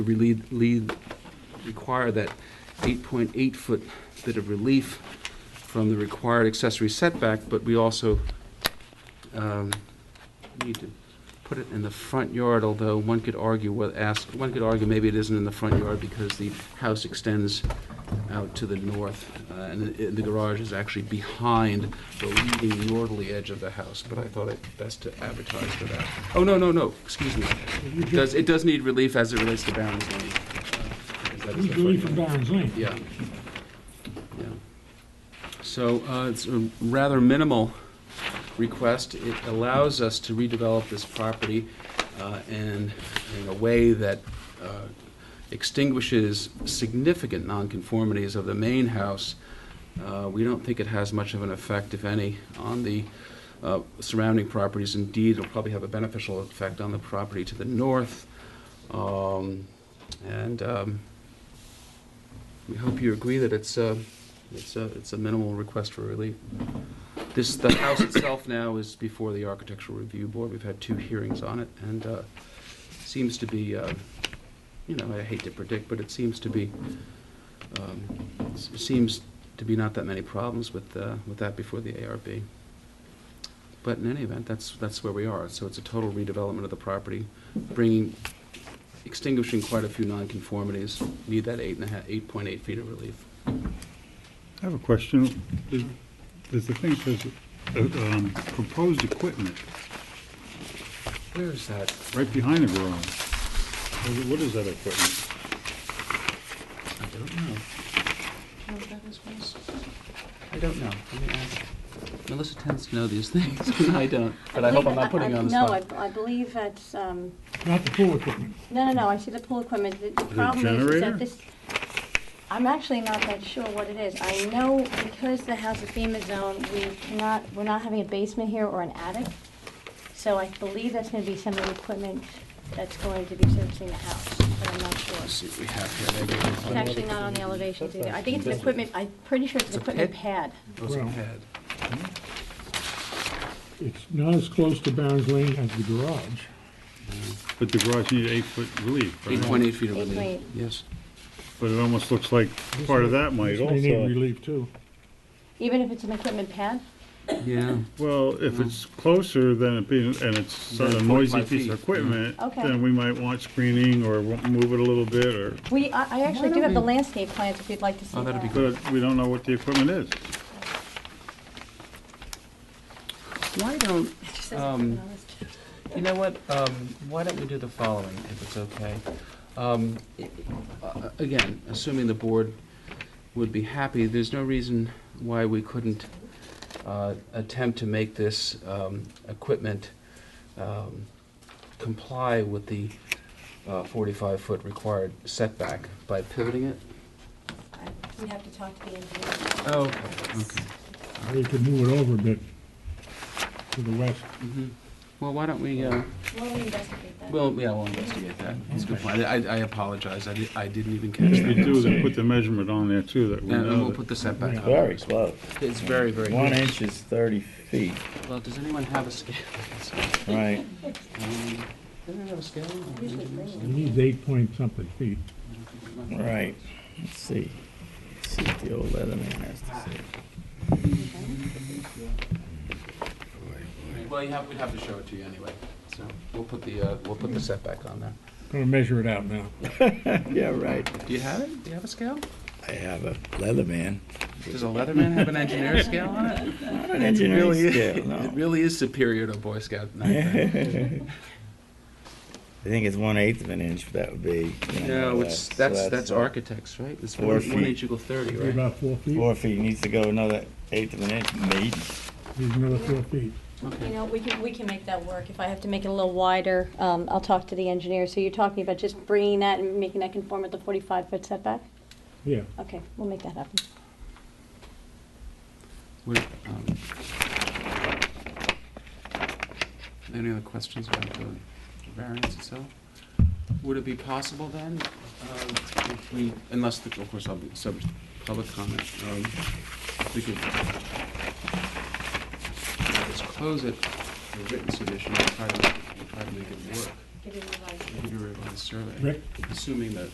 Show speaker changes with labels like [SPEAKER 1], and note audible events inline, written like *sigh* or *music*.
[SPEAKER 1] relieve, lead, require that 8.8-foot bit of relief from the required accessory setback, but we also um, need to put it in the front yard, although one could argue, with- ask, one could argue maybe it isn't in the front yard because the house extends out to the north, uh, and the- and the garage is actually behind the leading northerly edge of the house, but I thought it best to advertise for that. Oh, no, no, no, excuse me. It does, it does need relief as it relates to Barron's Lane. uh, because that is the
[SPEAKER 2] He's really
[SPEAKER 1] front
[SPEAKER 2] from
[SPEAKER 1] yard.
[SPEAKER 2] Barron's Lane.
[SPEAKER 1] Yeah. Yeah. So uh, it's a rather minimal request. It allows us to redevelop this property uh, in, in a way that uh, extinguishes significant nonconformities of the main house. Uh, We don't think it has much of an effect, if any, on the uh, surrounding properties. Indeed, it'll probably have a beneficial effect on the property to the north. Um, And um, we hope you agree that it's a, it's a, it's a minimal request for relief. This, the house itself now is before the Architectural Review Board. We've had two hearings on it, and uh, seems to be, uh, you know, I hate to predict, but it seems to be, um, s- seems to be not that many problems with, uh, with that before the ARB. But in any event, that's, that's where we are. So it's a total redevelopment of the property, bringing, extinguishing quite a few nonconformities. Need that eight and a half, eight point eight feet of relief.
[SPEAKER 3] I have a question. There's- There's the thing that says, uh, um, proposed equipment,
[SPEAKER 1] Where is that?
[SPEAKER 3] right behind the garage. What is- What is that equipment?
[SPEAKER 1] I don't know. Do you know what that is, Chris? I don't know. Let me ask. Melissa tends to know these *laughs* things, and I don't, but I hope I'm not putting you on the spot.
[SPEAKER 4] No, I I believe that's, um,
[SPEAKER 2] Not the pool equipment.
[SPEAKER 4] no, no, no, I see the pool equipment. The- The problem is- is
[SPEAKER 3] generator?
[SPEAKER 4] that this, I'm actually not that sure what it is. I know because the house is FEMA zone, we cannot, we're not having a basement here or an attic. So I believe that's going to be some of the equipment that's going to be servicing the house, but I'm not
[SPEAKER 1] Let's
[SPEAKER 4] sure.
[SPEAKER 1] see what we have here. Maybe it's
[SPEAKER 4] It's actually not on the elevations either. I think it's an equipment, I'm pretty sure it's
[SPEAKER 1] It's
[SPEAKER 4] an
[SPEAKER 1] a
[SPEAKER 4] equipment
[SPEAKER 1] pit?
[SPEAKER 4] pad.
[SPEAKER 1] Oh, it's a pad.
[SPEAKER 2] It's not as close to Barron's Lane as the garage.
[SPEAKER 3] But the garage needed eight-foot relief,
[SPEAKER 1] Eight
[SPEAKER 3] right?
[SPEAKER 1] point eight feet of
[SPEAKER 4] Eight
[SPEAKER 1] relief,
[SPEAKER 4] point-
[SPEAKER 1] yes.
[SPEAKER 3] But it almost looks like part of that might
[SPEAKER 2] This may need
[SPEAKER 3] also.
[SPEAKER 2] relief too.
[SPEAKER 4] Even if it's an equipment pad?
[SPEAKER 1] Yeah,
[SPEAKER 3] Well, if it's closer than it being, and it's
[SPEAKER 1] Then
[SPEAKER 3] a noisy
[SPEAKER 1] 45
[SPEAKER 3] piece of
[SPEAKER 1] feet.
[SPEAKER 3] equipment,
[SPEAKER 4] Okay.
[SPEAKER 3] then we might want screening or wa- move it a little bit or,
[SPEAKER 4] We, I I actually
[SPEAKER 1] Why
[SPEAKER 4] do
[SPEAKER 1] don't
[SPEAKER 4] have the
[SPEAKER 1] we-
[SPEAKER 4] landscape plans if you'd like to see that.
[SPEAKER 1] Oh, that'd be good.
[SPEAKER 3] but we don't know what the equipment is.
[SPEAKER 1] why don't,
[SPEAKER 4] Just as a
[SPEAKER 1] um,
[SPEAKER 4] phonologist.
[SPEAKER 1] You know what, um, why don't we do the following, if it's okay? Um, i- uh, Again, assuming the board would be happy, there's no reason why we couldn't uh, attempt to make this um, equipment um, comply with the uh, 45-foot required setback by pivoting it?
[SPEAKER 4] We have to talk to the engineer.
[SPEAKER 1] Oh, okay.
[SPEAKER 2] Or you could move it over a bit to the west.
[SPEAKER 1] Mhm. Well, why don't we, uh,
[SPEAKER 4] We'll investigate that.
[SPEAKER 1] well, yeah, we'll investigate that. That's a good point. I I apologize, I di- I didn't even catch
[SPEAKER 3] If
[SPEAKER 1] that.
[SPEAKER 3] you do, then put the measurement on there too, that we
[SPEAKER 1] And and
[SPEAKER 3] know
[SPEAKER 1] we'll
[SPEAKER 3] that.
[SPEAKER 1] put the setback on.
[SPEAKER 5] Very close.
[SPEAKER 1] It's very, very
[SPEAKER 5] One
[SPEAKER 1] good.
[SPEAKER 5] inch is thirty feet,
[SPEAKER 1] Well, does anyone have a scale?
[SPEAKER 5] right?
[SPEAKER 1] Um, Does anyone have a scale?
[SPEAKER 4] Usually bring
[SPEAKER 2] It needs eight point something feet.
[SPEAKER 5] Right. Let's see. Let's see what the old Leatherman has to say. *laughs*
[SPEAKER 1] Well, you have, we'd have to show it to you anyway, so we'll put the, uh, we'll put the setback on there.
[SPEAKER 2] Gonna measure it out now.
[SPEAKER 5] Yeah, right.
[SPEAKER 1] Do you have it? Do you have a scale?
[SPEAKER 5] I have a Leatherman.
[SPEAKER 1] Does a Leatherman have an engineer scale on it?
[SPEAKER 5] Not an engineering *laughs* scale,
[SPEAKER 1] It
[SPEAKER 5] no.
[SPEAKER 1] really is superior to a Boy Scout knife. *laughs*
[SPEAKER 5] I think it's one eighth of an inch, but that would be. you know,
[SPEAKER 1] No, it's,
[SPEAKER 5] so
[SPEAKER 1] that's, that's
[SPEAKER 5] uh,
[SPEAKER 1] architects, right? It's
[SPEAKER 5] Four
[SPEAKER 1] one one
[SPEAKER 5] feet.
[SPEAKER 1] inch equal thirty,
[SPEAKER 2] Be
[SPEAKER 1] right?
[SPEAKER 2] about four feet.
[SPEAKER 5] Four feet needs to go another eighth of an inch, maybe.
[SPEAKER 2] Needs another four feet.
[SPEAKER 4] You
[SPEAKER 1] Okay.
[SPEAKER 4] know, we can, we can make that work. If I have to make it a little wider, um, I'll talk to the engineer. So you're talking about just bringing that and making that conform with the forty-five foot setback?
[SPEAKER 2] Yeah.
[SPEAKER 4] Okay, we'll make that happen.
[SPEAKER 1] Would, um, Any other questions about the variance itself? Would it be possible then, um, if we, unless, the- of course, I'll be subject to public comment, um, if we could let's close it, the written submission, and try to, and try to make it work.
[SPEAKER 4] give you the right.
[SPEAKER 1] computer-revised survey,
[SPEAKER 2] Rick?
[SPEAKER 1] assuming that